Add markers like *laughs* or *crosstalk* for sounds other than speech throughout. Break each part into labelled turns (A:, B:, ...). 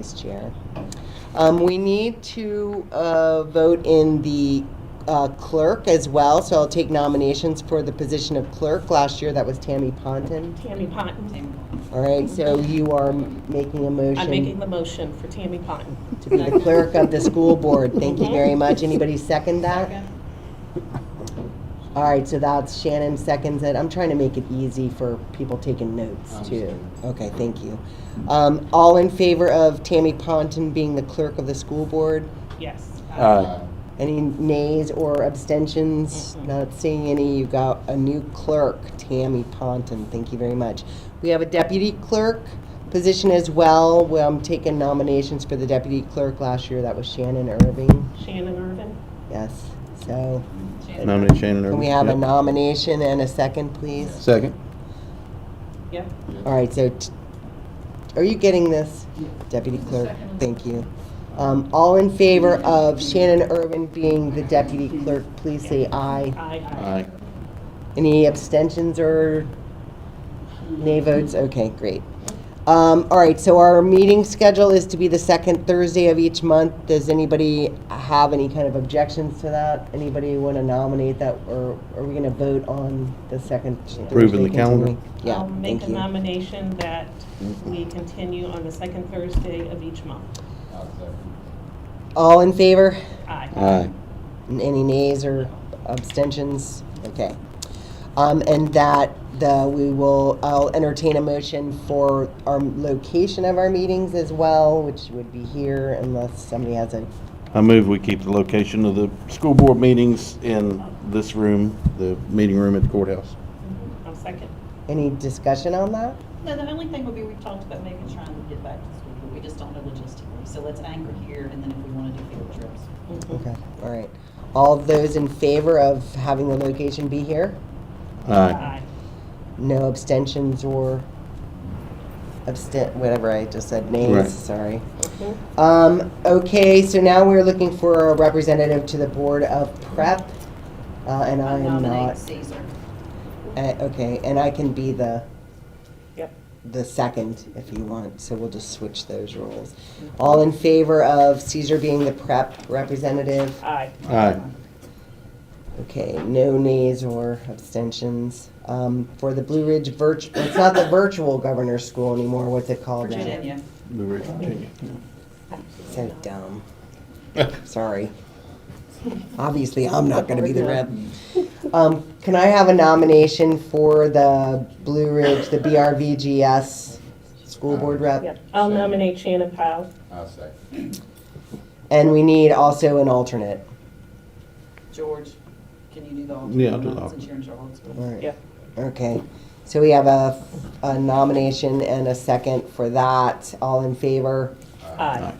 A: Vice Chair. Um, We need to uh, vote in the uh, clerk as well, so I'll take nominations for the position of clerk. Last year, that was Tammy Ponton.
B: Tammy Ponton.
A: All right, so you are m- making a motion.
B: I'm making the motion for Tammy Ponton.
A: To *laughs* be the clerk of the school board. Thank you very much. Anybody second that? All right, so that's Shannon seconds it. I'm trying to make it easy for people taking notes too. Okay, thank you. Um, All in favor of Tammy Ponton being the clerk of the school board?
B: Yes.
C: Aye.
A: Any nays or abstentions?
B: Mm-mm.
A: Not seeing any. You got a new clerk, Tammy Ponton. Thank you very much. We have a deputy clerk position as well. Well, I'm taking nominations for the deputy clerk last year. That was Shannon Irving.
B: Shannon Irvin.
A: Yes. So
C: Nominate Shannon Irving.
A: can we have a
C: Yep.
A: nomination and a second, please?
C: Second.
B: Yep.
A: All right, so t- are you getting this, deputy clerk? Thank you. Um, All in favor of Shannon Irvin being the deputy clerk, please say aye.
B: Aye, aye.
C: Aye.
A: Any abstentions or nay votes? Okay, great. Um, all right, so our meeting schedule is to be the second Thursday of each month. Does anybody have any kind of objections to that? Anybody want to nominate that, or are we going to vote on the second Thursday?
C: Approving the calendar.
A: continuing? Yeah,
B: I'll make
A: thank
B: a
A: you.
B: nomination that we continue on the second Thursday of each month.
A: All in favor?
B: Aye.
C: Aye.
A: N- Any nays or abstentions? Okay. Um, and that the, we will, I'll entertain a motion for our location of our meetings as well, which would be here unless somebody has a,
C: I move we keep the location of the school board meetings in this room, the meeting room at the courthouse.
B: Mm-hmm. I'll second.
A: any discussion on that?
D: No, the only thing would be, we've talked about maybe trying to get back to school, but we just don't know logistically. So let's anchor here, and then if we want to do field trips.
B: Mm-hmm.
A: Okay, all right. All those in favor of having the location be here?
C: Aye.
A: No abstentions or abstent, whatever I just said,
C: Right.
A: nays, sorry.
B: Mhm.
A: Um, okay, so now we're looking for a representative to the Board of Prep, uh, and I am
D: Nominate
A: not.
D: Caesar.
A: Uh, okay, and I can be the,
B: Yep.
A: the second if you want, so we'll just switch those roles. All in favor of Caesar being the prep representative?
B: Aye.
C: Aye.
A: Okay, no nays or abstentions. Um, for the Blue Ridge Virtu, it's not the virtual governor's school anymore, what's it called now?
D: Virginia.
C: Blue Ridge, Virginia.
A: So dumb. Sorry. Obviously, I'm not gonna be the rep. Um, can I have a nomination for the Blue Ridge, the BRVGS school board
B: Uh, Yep.
A: rep?
B: I'll nominate Shannon Powell.
E: I'll second.
A: And we need also an alternate.
D: George, can you do the alternate?
C: Yeah, I'll do the
D: Since you're in Charlottesville.
A: All right.
B: Yep.
A: Okay, so we have a, a nomination and a second for that. All in favor?
B: Aye.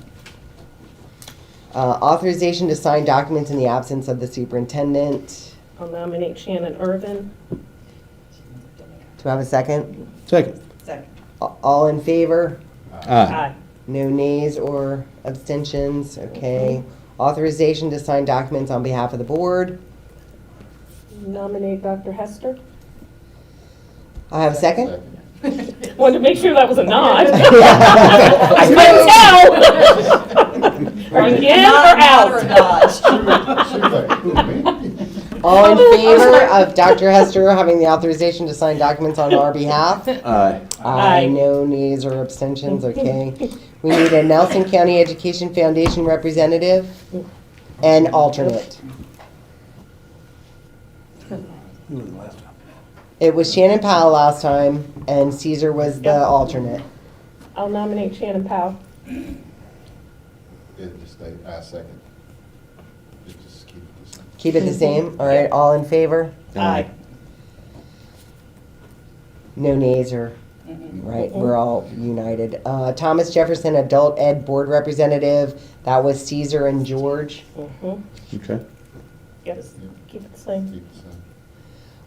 A: Uh, authorization to sign documents in the absence of the superintendent.
B: I'll nominate Shannon Irvin.
A: Do I have a second?
C: Second.
D: Second.
A: A- All in favor?
C: Aye.
A: No nays or abstentions, okay. Authorization to sign documents on behalf of the board.
B: Nominate Dr. Hester.
A: I have a second?
B: Wanted to make sure that was a nod. I couldn't tell. Are you in or
D: Not-
B: out? *laughs*
A: All in favor of Dr. Hester having the authorization to sign documents on our behalf?
C: Aye.
A: Aye,
B: Aye.
A: no nays or abstentions, okay. We need a Nelson County Education Foundation representative and alternate. It was Shannon Powell last time, and Caesar was the alternate.
B: I'll nominate Shannon Powell.
E: Did the state, I second. Just- Just keep it the same.
A: Keep it the same, all right, all in favor?
B: Aye.
A: No nays or, right, we're all united. Uh, Thomas Jefferson Adult Ed Board Representative, that was Caesar and George.
B: Mhm.
C: Okay.
B: Yes, keep it the same.
E: Keep it the same.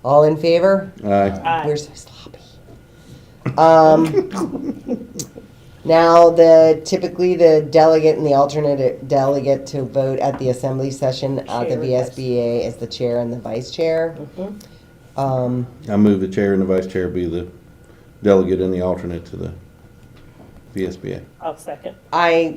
A: All in favor?
C: Aye.
A: We're
B: Aye.
A: so sloppy.
C: *laughs*
A: Um, now, the, typically, the delegate and the alternate uh, delegate to vote at the assembly session at the
B: Chair, yes.
A: VSBA is the chair and the vice chair.
B: Mhm.
A: Um,
C: I move the chair and the vice chair be the delegate and the alternate to the VSBA.
B: I'll second.
A: I